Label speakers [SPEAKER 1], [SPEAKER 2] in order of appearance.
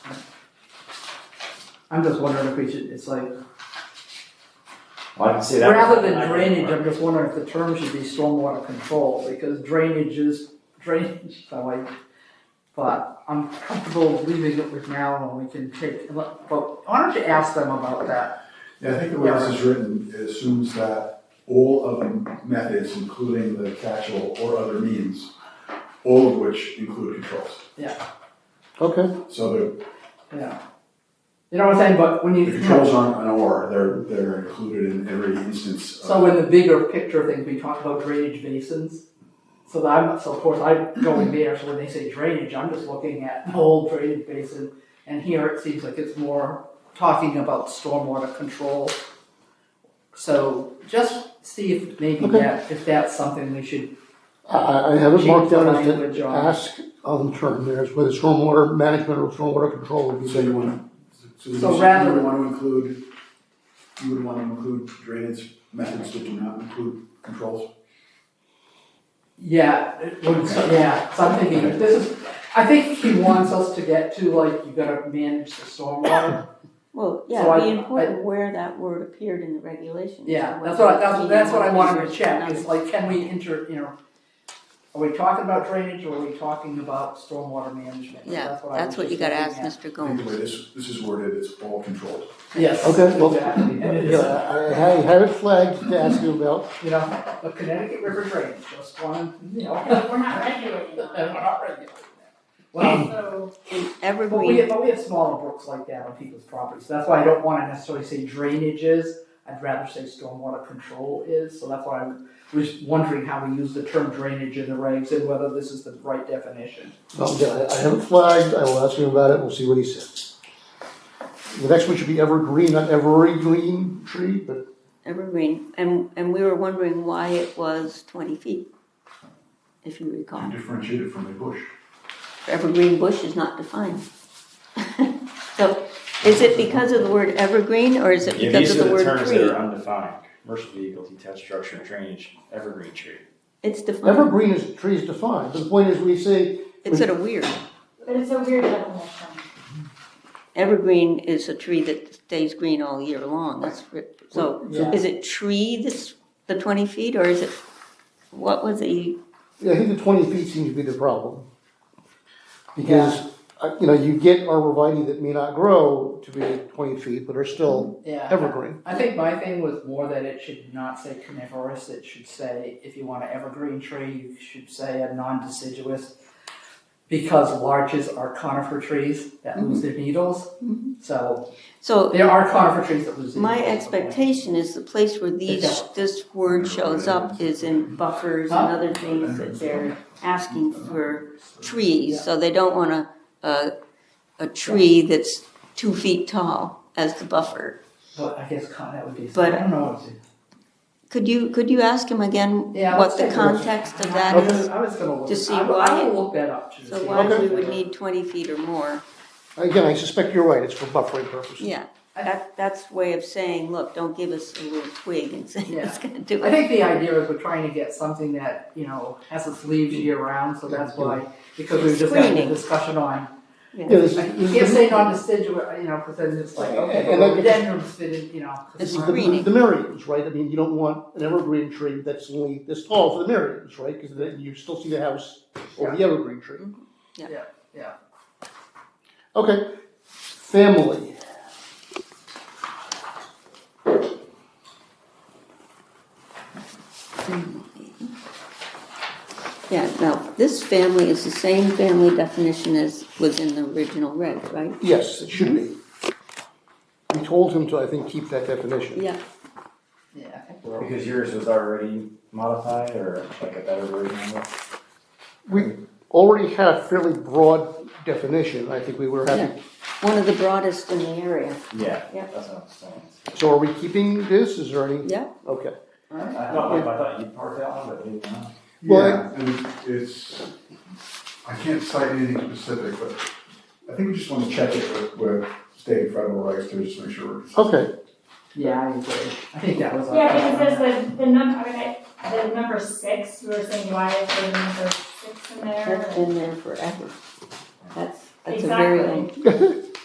[SPEAKER 1] I'm just wondering if we should, it's like,
[SPEAKER 2] Well, I can see that.
[SPEAKER 1] rather than drainage, I'm just wondering if the term should be stormwater control, because drainage is drainage, so I, but I'm comfortable leaving it with now and we can take, but why don't you ask them about that?
[SPEAKER 3] Yeah, I think the way this is written, it assumes that all of the methods, including the catch-all or other means, all of which include controls.
[SPEAKER 4] Okay,
[SPEAKER 3] So the-
[SPEAKER 1] Yeah. You know what I'm saying, but when you,
[SPEAKER 3] the controls aren't an or, they're, they're included in every instance of.
[SPEAKER 1] So in the bigger picture things, we talk about drainage basins. So that I'm, so of course I go in there, so when they say drainage, I'm just looking at the whole drainage basin. And here it seems like it's more talking about stormwater control. So just see if maybe
[SPEAKER 4] Okay.
[SPEAKER 1] that, if that's something we should
[SPEAKER 4] I- I, I have it marked
[SPEAKER 1] change the
[SPEAKER 4] down uh-huh. as to
[SPEAKER 1] language on.
[SPEAKER 4] ask on the term there is whether stormwater management or stormwater control would be.
[SPEAKER 3] So you wanna, so you
[SPEAKER 1] So
[SPEAKER 3] would
[SPEAKER 1] rather-
[SPEAKER 3] wanna include, you would wanna include drainage methods that do not include controls?
[SPEAKER 1] Yeah, it would- yeah, so I'm thinking, if this is, I think he wants us to get to like, you gotta manage the stormwater.
[SPEAKER 5] Well,
[SPEAKER 1] So
[SPEAKER 5] yeah,
[SPEAKER 1] I-
[SPEAKER 5] it'd be important where that word appeared in the regulations.
[SPEAKER 1] Yeah,
[SPEAKER 5] and
[SPEAKER 1] that's
[SPEAKER 5] whether
[SPEAKER 1] what, I- that's,
[SPEAKER 5] it's
[SPEAKER 1] what- that's what I
[SPEAKER 5] being
[SPEAKER 1] wanted to
[SPEAKER 5] used
[SPEAKER 1] check,
[SPEAKER 5] or
[SPEAKER 1] is
[SPEAKER 5] not.
[SPEAKER 1] like, can we enter, you know, are we talking about drainage or are we talking about stormwater management? So
[SPEAKER 5] Yeah,
[SPEAKER 1] I was
[SPEAKER 5] that's what you
[SPEAKER 1] just
[SPEAKER 5] gotta ask
[SPEAKER 1] looking at.
[SPEAKER 5] Mr.
[SPEAKER 3] I think the way
[SPEAKER 5] Gomes.
[SPEAKER 3] this, this is worded, it's all controlled.
[SPEAKER 1] Yes.
[SPEAKER 4] Okay, well,
[SPEAKER 1] exactly. And it
[SPEAKER 4] Yeah,
[SPEAKER 1] is,
[SPEAKER 4] I, I I have it flagged to ask you about.
[SPEAKER 1] You know, the Connecticut River drainage, just one, you know.
[SPEAKER 6] No, we're not regulating
[SPEAKER 1] And
[SPEAKER 6] on
[SPEAKER 1] we're
[SPEAKER 6] it.
[SPEAKER 1] not regulating that. Well,
[SPEAKER 6] So,
[SPEAKER 5] In
[SPEAKER 1] but we,
[SPEAKER 5] evergreen,
[SPEAKER 1] have- but we have smaller brooks like that on people's properties, that's why I don't wanna necessarily say drainage is, I'd rather say stormwater control is, so that's why I was wondering how we use the term drainage in the regs and whether this is the right definition.
[SPEAKER 4] Well, yeah, I- I have it flagged, I will ask him about it, we'll see what he says. The next one should be evergreen, not every green tree, but
[SPEAKER 5] evergreen, and, and we were wondering why it was twenty feet, if you recall.
[SPEAKER 3] Differentiate it from a bush.
[SPEAKER 5] Evergreen bush is not defined. So, is it because of the word evergreen, or is it
[SPEAKER 2] Yeah, these are
[SPEAKER 5] because of the
[SPEAKER 2] the
[SPEAKER 5] word
[SPEAKER 2] terms that
[SPEAKER 5] tree?
[SPEAKER 2] are undefined, commercial vehicle, detached structure, drainage, evergreen tree.
[SPEAKER 5] It's defined,
[SPEAKER 4] evergreen is, tree is defined, the point is we say,
[SPEAKER 5] it's sort of weird.
[SPEAKER 6] but it's a weird definition.
[SPEAKER 5] Evergreen is a tree that stays green all year long, that's, ri- so,
[SPEAKER 1] Yeah.
[SPEAKER 5] is it tree that's the twenty feet, or is it, what was the,
[SPEAKER 4] yeah, I think the twenty feet seems to be the problem. Because, uh, you know, you get arborvitae that may not grow to be twenty feet, but are still
[SPEAKER 1] Yeah.
[SPEAKER 4] evergreen.
[SPEAKER 1] I think my thing was more that it should not say coniferous, it should say, if you want an evergreen tree, you should say a non-deciduous. Because larches are conifer trees that
[SPEAKER 5] Mm-hmm.
[SPEAKER 1] lose their needles, so
[SPEAKER 5] so
[SPEAKER 1] there are conifer trees that lose their
[SPEAKER 5] Mm-hmm. My
[SPEAKER 1] needles, okay.
[SPEAKER 5] expectation is the place where these,
[SPEAKER 1] Yeah.
[SPEAKER 5] this word shows up is in buffers and other things that they're asking for trees, so they don't want a, a, a tree that's two feet tall as the buffer.
[SPEAKER 1] But I guess con, that would be, I
[SPEAKER 5] But-
[SPEAKER 1] don't know. what to-
[SPEAKER 5] Could you, could you ask him again
[SPEAKER 1] Yeah, let's
[SPEAKER 5] what the
[SPEAKER 1] take a look.
[SPEAKER 5] context of
[SPEAKER 1] I
[SPEAKER 5] that
[SPEAKER 1] was-
[SPEAKER 5] is?
[SPEAKER 1] I was gonna look,
[SPEAKER 5] to see
[SPEAKER 1] I will, I
[SPEAKER 5] why-
[SPEAKER 1] will look that up to see.
[SPEAKER 5] So why we
[SPEAKER 4] Okay.
[SPEAKER 5] would need twenty feet or more,
[SPEAKER 4] Again, I suspect you're right, it's for buffering purposes.
[SPEAKER 5] yeah. That, that's way of saying, look, don't give us a little twig and say it's gonna do
[SPEAKER 1] I
[SPEAKER 5] it.
[SPEAKER 1] think the idea is we're trying to get something that, you know, has its leaves year round, so that's why, because we just had a
[SPEAKER 5] Screening.
[SPEAKER 1] discussion on
[SPEAKER 4] Yeah, this
[SPEAKER 1] Like, You
[SPEAKER 4] is,
[SPEAKER 1] can't
[SPEAKER 4] this is
[SPEAKER 1] say non-deciduous, you know, because then it's like, okay,
[SPEAKER 4] And that-
[SPEAKER 1] well, dendrums fit in, you know. 'cause
[SPEAKER 5] It's
[SPEAKER 1] we're-
[SPEAKER 4] the,
[SPEAKER 5] Greening.
[SPEAKER 4] the myriads, right? I mean, you don't want an evergreen tree that's only this tall for the myriads, right? Because then you still see the house or the evergreen tree.
[SPEAKER 5] Mm-hmm. Yeah.
[SPEAKER 1] Yeah, yeah.
[SPEAKER 4] Okay, family.
[SPEAKER 5] Yeah, now, this family is the same family definition as was in the original reg, right?
[SPEAKER 4] Yes, it should be. We told him to, I think, keep that definition.
[SPEAKER 5] Yeah,
[SPEAKER 1] Yeah, I think we're-
[SPEAKER 2] Because yours was already modified or like a better version of it?
[SPEAKER 4] We already had a fairly broad definition. I think we were happy.
[SPEAKER 5] one of the broadest in the area.
[SPEAKER 2] Yeah,
[SPEAKER 5] Yeah.
[SPEAKER 2] that's what I'm saying.
[SPEAKER 4] So are we keeping this? Is there any?
[SPEAKER 5] Yeah.
[SPEAKER 4] Okay.
[SPEAKER 2] I thought, I thought you parked that one, but maybe not.
[SPEAKER 4] Well,
[SPEAKER 3] Yeah, and it's, I can't cite anything specific, but I think we just wanna check it with, with state and federal rights to just make sure we're
[SPEAKER 4] Okay.
[SPEAKER 1] Yeah, I agree. I think that was. "Oh,
[SPEAKER 6] Yeah, because there's the, the number, I mean, I- the number six, you were saying why is there a number six in there?
[SPEAKER 5] That's been there forever. That's, that's a
[SPEAKER 6] Exactly.
[SPEAKER 5] very old,